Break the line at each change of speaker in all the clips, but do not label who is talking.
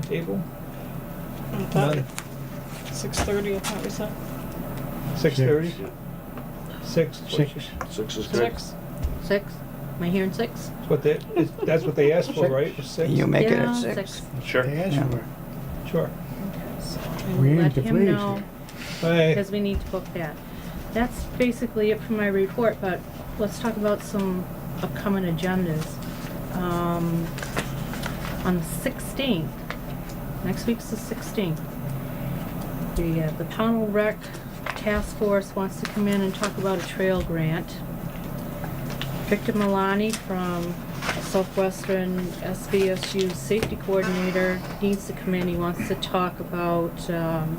timetable?
I thought six thirty, I thought we said.
Six thirty? Six?
Six.
Six is good.
Six.
Six? Am I hearing six?
That's what they, is- that's what they asked for, right? Was Six?
You make it
Yeah,
at six.
Sure.
They asked for
Sure.
it. We
Let
need to
him
please.
know,
here.
Hey,
because we need to book that. That's basically it for my report, but let's talk about some upcoming agendas. Um, on the sixteenth, next week's the sixteenth, the, uh, the Pownell Rec Task Force wants to come in and talk about a trail grant. Victor Milani from Southwestern SBSU Safety Coordinator needs to come in. He wants to talk about um,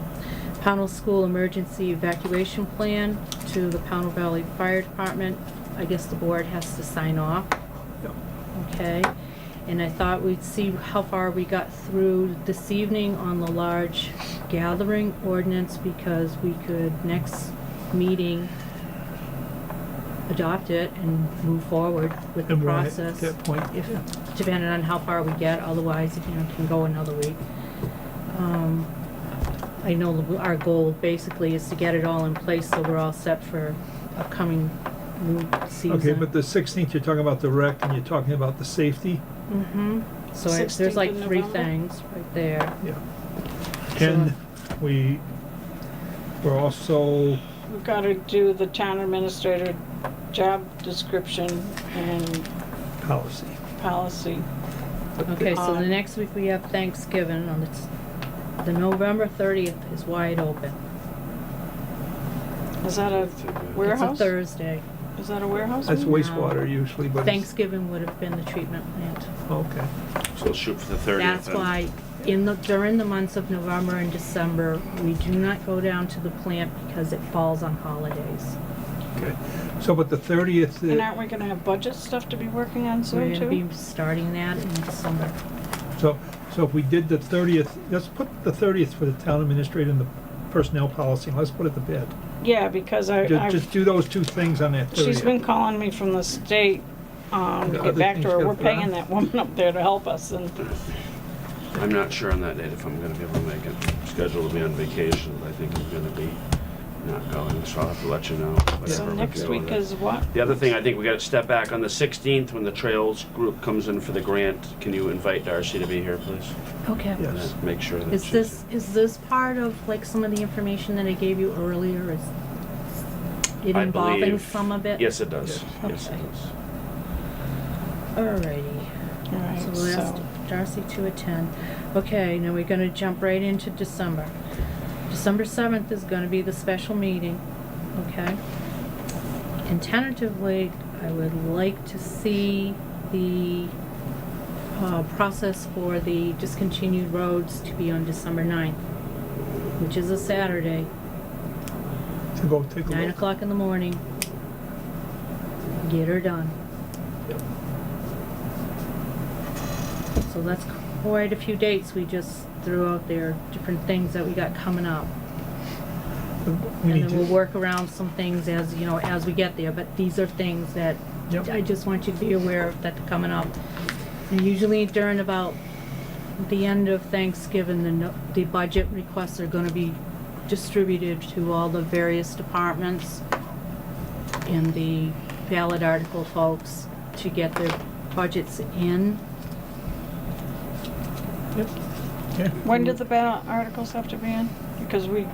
Pownell School Emergency Evacuation Plan to the Pownell Valley Fire Department. I guess the board has to sign off. Okay, and I thought we'd see how far we got through this evening on the large gathering ordinance because we could next meeting adopt it and move forward with the
And we're at
process.
that point,
If,
yeah.
depending on how far we get, otherwise, you know, it can go another week. Um, I know the- our goal basically is to get it all in place so we're all set for upcoming new season.
okay, but the sixteenth, you're talking about the wreck and you're talking about the safety?
Mm-hmm, so I-
16th
there's
of
like three
November?
things right there.
Yeah. And we, we're also,
We've got to do the town administrator job description and
policy.
policy.
Okay, so the
Um,
next week we have Thanksgiving on the, t- the November thirtieth is wide open.
Is that a
It's
warehouse?
a Thursday. Um,
Is that a warehouse?
That's
meeting?
wastewater usually, but it's,
Thanksgiving would have been the treatment plant.
okay.
So let's shoot for the thirtieth.
That's why in the, during the months of November and December, we do not go down to the plant because it falls on holidays.
Okay. So, but the thirtieth,
And aren't we going to have budget stuff to be working on
We're
soon
gonna
too?
be starting that in December.
so, so if we did the thirtieth, let's put the thirtieth for the town administrator and the personnel policy, and let's put it to bed.
Yeah, because I,
Ju-
I,
Just do those two things on that
she's been
30th.
calling me from the state, um, to
Yeah,
get
other
back
things
to her.
gotta
We're
put on.
paying that woman up there to help us and
I'm not sure on that date if I'm gonna be able to make it. Scheduled to be on vacation, but I think I'm gonna be not going, so I'll have to let you know. whatever
so
we can
next
do
week
with it.
is what?
The other thing, I think we gotta step back on the sixteenth when the trails group comes in for the grant. Can you invite Darcy to be here, please?
Okay.
Yeah.
And
Yes.
then Make sure that
Is
she's-
this, is this part of like some of the information that I gave you earlier? Is it
I
involving
believe-
some of it?
Yes, it does. Yes, it
Okay.
does.
Alrighty.
All right,
So we'll ask
so-
Darcy to attend. Okay, now we're gonna jump right into December. December seventh is gonna be the special meeting, okay? And tentatively, I would like to see the, uh, process for the discontinued roads to be on December ninth, which is a Saturday,
To go take a
nine
look.
o'clock in the morning. Get her done.
Yep.
So that's quite a few dates we just threw out there, different things that we got coming up.
We
And
need
then we'll
to,
work around some things as, you know, as we get there, but these are things that
Yep.
I just want you to be aware of that are coming up. And usually during about the end of Thanksgiving, the, no- the budget requests are gonna be distributed to all the various departments and the ballot article folks to get their budgets in.
yeah.
When did the ballot articles have to be in? Because we,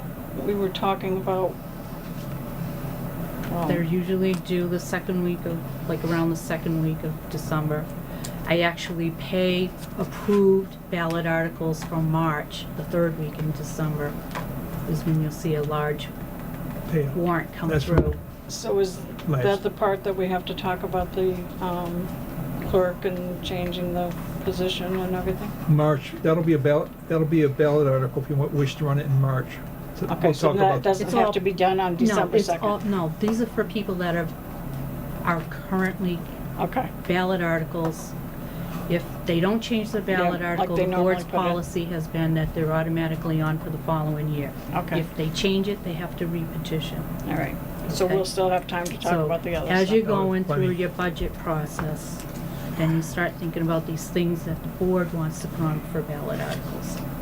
we were talking about. um,
They're usually due the second week of, like around the second week of December. I actually pay approved ballot articles from March, the third week in December is when you'll see a large
Yeah.
warrant come
That's
through.
So is
Nice.
that the part that we have to talk about the um, clerk and changing the position and everything?
March, that'll be a ballot, that'll be a ballot article if you wa- wish to run it in March. So
Okay,
we'll
so
talk
that
about-
doesn't
It's
have
all-
to be done on
No,
December
it's all,
2nd?
no, these are for people that are, are currently
Okay,
ballot articles. If they don't change the ballot
Yeah, like
article,
they
the board's
normally put it.
policy has been that they're automatically on for the following year.
Okay.
If they change it, they have to repetition.
all right. So
Okay.
we'll still have time to talk
So,
about the other
As you're
stuff.
That was
going through
plenty.
your budget process, then you start thinking about these things that the board wants to put on for ballot articles.